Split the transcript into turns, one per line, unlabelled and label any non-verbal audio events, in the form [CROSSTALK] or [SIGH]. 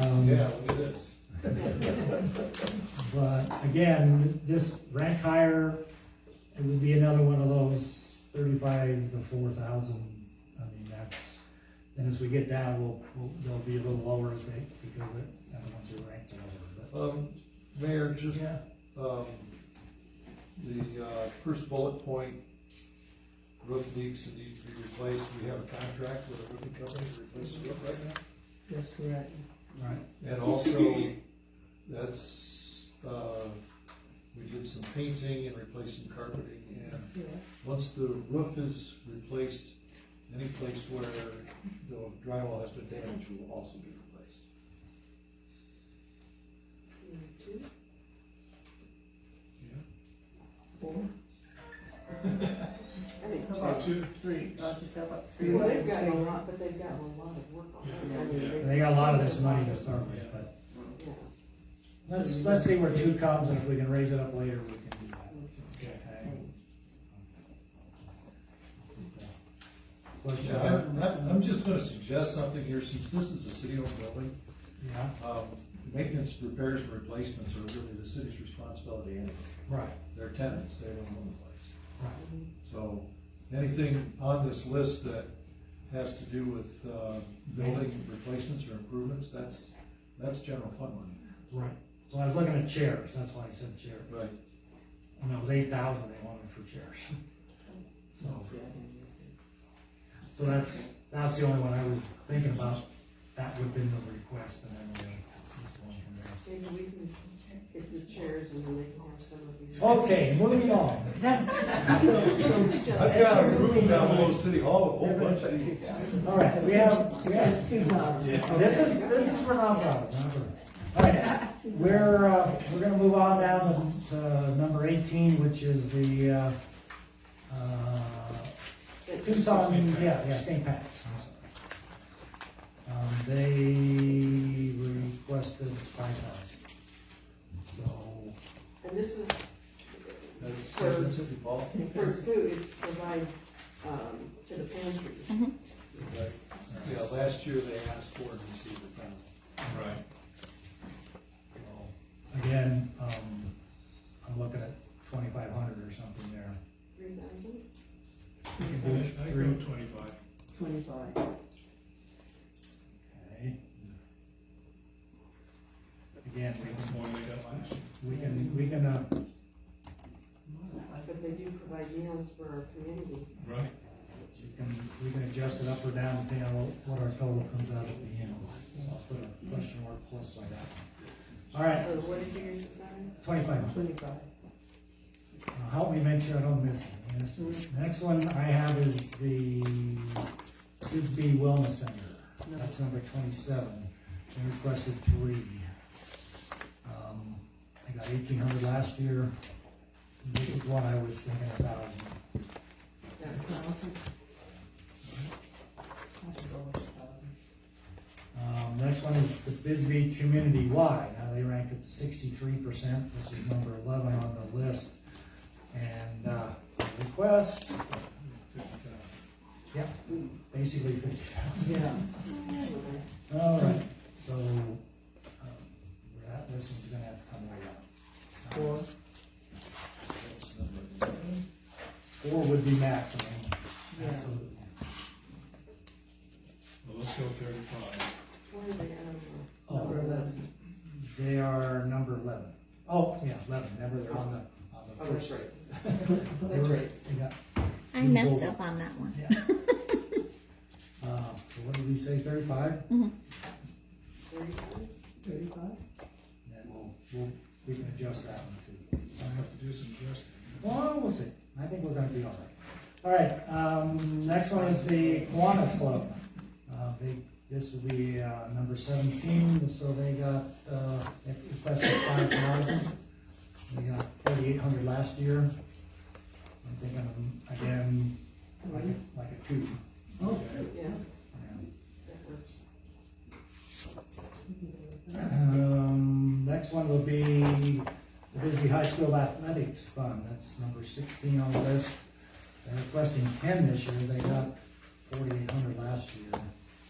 yeah, look at this.
But again, this rank higher, it would be another one of those thirty-five to four thousand. I mean, that's, and as we get down, we'll, we'll, they'll be a little lower as they, because the other ones are ranked lower,
Um, Mayor,
but.
just,
Yeah,
um, the, uh, first bullet point, roof leaks that needs to be replaced, we have a contract with a roofing company to replace the roof right now.
That's correct.
right.
And also, that's, uh, we did some painting and replaced some carpeting, and once the roof is replaced, any place where the drywall has been damaged will also be replaced.
One, two,
Yeah.
four.
I think
How
two.
about
two.
three? Us is how about three?
Well, they've got a lot, but they've got a lot of work on it. I mean,
And They got a lot of this money to start with, but
Yeah.
let's, let's see where two comes, and if we can raise it up later, we can do that. Okay. Question?
Yeah, I'm, I'm- I'm just gonna suggest something here, since this is a city-owned building,
Yeah,
um, maintenance, repairs, and replacements are really the city's responsibility anyway.
right,
They're tenants, they don't own the place.
right.
So, anything on this list that has to do with, uh, building replacements or improvements, that's, that's general fund money.
Right, so I was looking at chairs, that's why I said chair,
Right.
when it was eight thousand, they wanted for chairs. [LAUGHS] So, so that's, that's the only one I was thinking about, that would've been the request, and then we. just going from there.
Maybe we can get the chairs and then they can have some of these.
Okay, moving on,
I've got a room down below City Hall with a whole bunch of these.
all right, we have, we have,
Two dollars.
this is, this is for nonprofits, not for. All right, we're, uh, we're gonna move on now to, uh number eighteen, which is the, uh, uh, Tucson, yeah, yeah, St. Pat's. I'm sorry. Um, they requested five thousand. So,
And this is
That's, that's City Hall.
for food, it's provided, um, to the pantry.
Right.
uh,
Yeah, last year they asked for it and received a thousand.
Right.
again, um, I'm looking at twenty-five hundred or something there.
Three thousand?
I go twenty-five.
Twenty-five.
Okay. Again, we
It's
can,
more than I got last year.
we can, we can, uh,
But they do provide meals for our community.
Right.
we can, we can adjust it up or down depending on what our total comes out at the end. I'll put a question mark plus by that. All
So
right,
what did you decide?
twenty-five hundred.
Twenty-five.
Now, Help me make sure I don't miss it. Yes. Next one I have is the Bisbee Wellness Center. That's number twenty-seven. They requested three. Um, I got eighteen hundred last year. This is one I was thinking about.
Thousand. I should go with a thousand.
Um, next one is the Bisbee Community Wide. Now they ranked at sixty-three percent. This is number eleven on the list. And, uh, request,
Fifty thousand.
basically fifty thousand.
Yeah.
All right, so, um, that, this one's gonna have to come way up.
Four.
That's number eleven.
Four would be maximum,
Yeah.
absolutely.
Well, let's go thirty-five.
Where are they on?
Number
Oh,
eleven.
They are number eleven. Oh, yeah, eleven, never, they're on the, on the
Oh, that's
first.
right.
they
That's
were-
right.
they got-
I
You
messed
go-
up on that one.
[LAUGHS] yeah. Uh, so what did we say, thirty-five?
Thirty-five?
Thirty-five?
Then we'll, we'll, we can adjust that one too. Oh,
I have to do some adjusting.
Well, we'll see. I think we're gonna be all right. All right, um, next one is the Kiwanis Club. Uh, they, this will be, uh, number seventeen, so they got, uh, they requested five thousand. They got forty-eight hundred last year. I'm thinking, um, again, like, a- like a two.
Oh.
Yeah,
Yeah.
that works.
Um, next one will be the Bisbee High School Athletics Fund, that's number sixteen on the list. They're requesting ten this year, they got forty-eight hundred last year.